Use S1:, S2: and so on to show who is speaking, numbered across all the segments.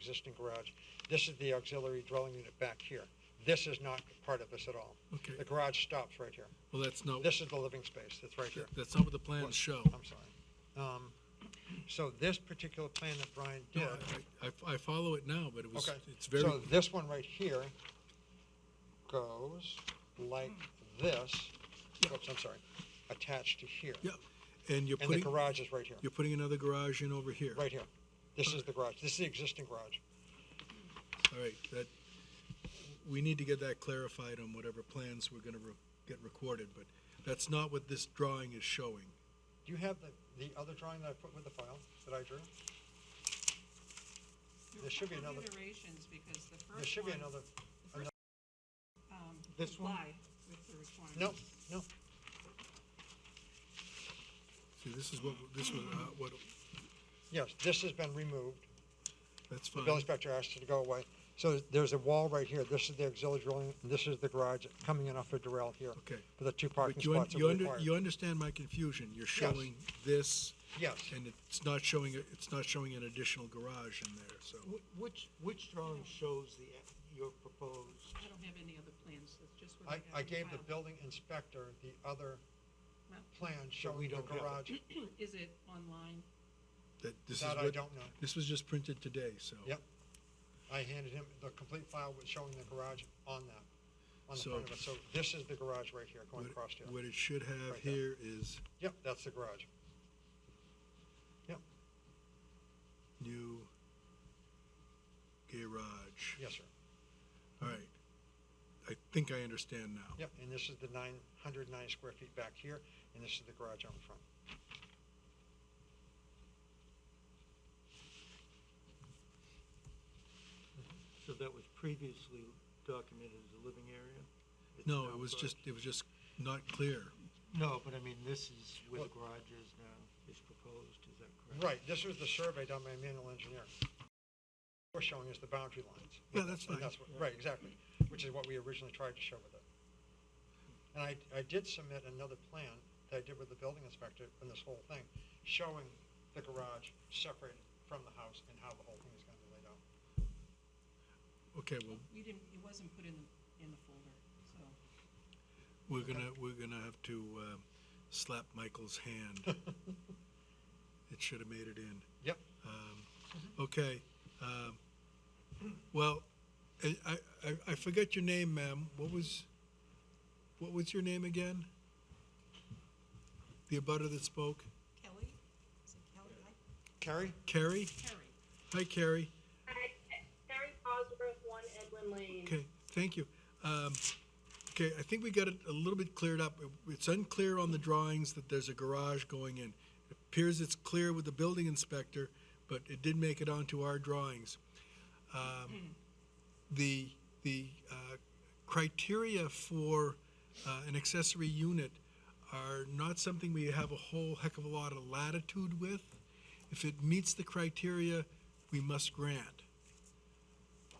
S1: existing garage. This is the auxiliary dwelling unit back here. This is not part of this at all.
S2: Okay,
S1: The garage stops right here.
S2: well, that's not,
S1: This is the living space that's right here.
S2: that's not what the plans show.
S1: I'm sorry. Um, so this particular plan that Brian did,
S2: No, I, I, I follow it now, but it was,
S1: Okay.
S2: it's very,
S1: so this one right here goes like this.
S2: Yeah.
S1: Oops, I'm sorry, attached to here.
S2: yeah, and you're
S1: And the
S2: putting,
S1: garage is right here,
S2: you're putting another garage in over here.
S1: right here. This is the garage. This is the existing garage.
S2: All right, that, we need to get that clarified on whatever plans we're gonna re- get recorded, but that's not what this drawing is showing.
S1: Do you have the, the other drawing that I put with the file that I drew?
S3: There
S1: There should be another-
S3: Iterations, because the
S1: There
S3: first
S1: should be
S3: one,
S1: another,
S3: um,
S1: this one?
S3: complied with the requirements.
S1: no, no,
S2: See, this is what, this was, uh, what,
S1: yes, this has been removed.
S2: that's
S1: The
S2: fine.
S1: building inspector asked it to go away. So there's a wall right here. This is the auxiliary dwelling, and this is the garage coming in off of Durrell here.
S2: Okay.
S1: For the two parking
S2: But you, un-
S1: spots that
S2: you
S1: were
S2: under,
S1: required.
S2: you understand my confusion, you're showing this,
S1: Yes.
S2: and it's not showing, a- it's not showing an additional garage in there, so.
S4: Wh- Which, which drawing shows the, your proposed?
S3: I don't have any other plans, that's just what I
S1: I,
S3: have.
S1: I
S3: in
S1: gave the
S3: file.
S1: building inspector the other
S3: Well-
S1: plan showing the
S4: don't have it.
S1: garage.
S3: Is it online?
S2: That, this is
S1: That I
S2: what-
S1: don't know.
S2: This was just printed today, so.
S1: Yep. I handed him the complete file with showing the garage on that, on the
S2: So-
S1: front of it. So this is the garage right here going
S2: What,
S1: across here.
S2: what it should have
S1: Right there.
S2: here is
S1: Yep, that's the garage. Yep,
S2: new garage.
S1: yes, sir.
S2: All right. I think I understand now.
S1: Yep, and this is the nine hundred nine square feet back here, and this is the garage on the front.
S4: So that was previously documented as a living area? It's
S2: No,
S4: now
S2: it was
S4: garage.
S2: just, it was just not clear.
S4: No, but I mean, this is where the
S1: Well-
S4: garage is now, is proposed, is that correct?
S1: Right, this was the survey done by a manual engineer. We're showing is the boundary lines.
S2: Yeah, that's
S1: And
S2: fine.
S1: what- Right, exactly, which is what we originally tried to show with it. And I, I did submit another plan that I did with the building inspector in this whole thing, showing the garage separated from the house and how the whole thing is gonna be laid out.
S2: Okay, well,
S3: We didn't, it wasn't put in, the in the folder, so.
S2: we're gonna, we're gonna have to, uh, slap Michael's hand. It should have made it in.
S1: Yep,
S2: Um, Okay. um, Well, I, I- I, I forget your name, ma'am. What was, what was your name again? The abutter that spoke?
S3: Kelly, is it Kelly? I-
S1: Carrie?
S2: Carrie?
S3: Carrie,
S2: Hi, Carrie.
S5: Hi, Terry Cosgrove, One Edwin Lane.
S2: Okay, thank you. Um, Okay, I think we got it a little bit cleared up. It- It's unclear on the drawings that there's a garage going in. It Appears it's clear with the building inspector, but it did make it onto our drawings. Um, The, the uh, criteria for uh, an accessory unit are not something we have a whole heck of a lot of latitude with. If it meets the criteria, we must grant.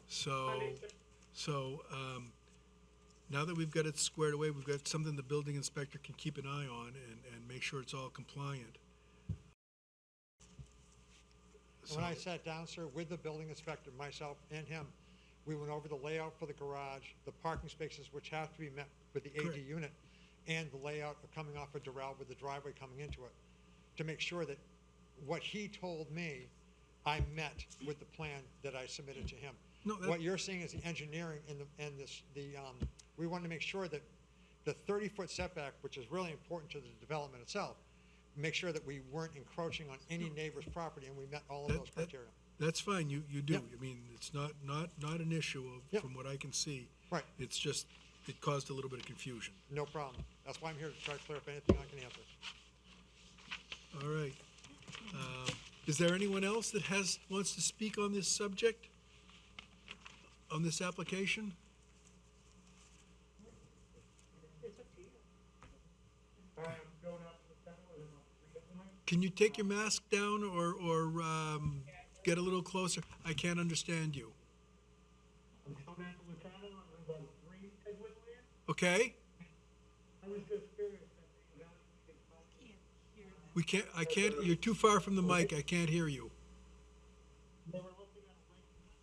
S2: So.
S5: Understood.
S2: So, um, now that we've got it squared away, we've got something the building inspector can keep an eye on and, and make sure it's all compliant.
S1: And When I sat down, sir, with the building inspector, myself and him, we went over the layout for the garage, the parking spaces which have to be met with the AD
S2: Correct.
S1: unit, and the layout of coming off of Doral with the driveway coming into it, to make sure that what he told me, I met with the plan that I submitted to him.
S2: No, that-
S1: What you're seeing is the engineering and the, and this, the, um, we wanted to make sure that the thirty-foot setback, which is really important to the development itself, make sure that we weren't encroaching on any neighbor's property, and we met all of
S2: That-
S1: those
S2: that-
S1: criteria.
S2: That's fine, you, you do.
S1: Yep.
S2: I mean, it's not, not, not an issue of,
S1: Yep.
S2: from what I can see.
S1: Right.
S2: It's just, it caused a little bit of confusion.
S1: No problem. That's why I'm here to try to clear up anything I can answer.
S2: All right. Um, Is there anyone else that has, wants to speak on this subject? On this application? Can you take your mask down or, or um, get a little closer? I can't understand you.
S6: I'm Tom Napolitano, I live on three Edwin Lane.
S2: Okay?
S6: I was just curious, I mean, that,
S3: can't hear that.
S2: We can't, I can't, you're too far from the mic. I can't hear you.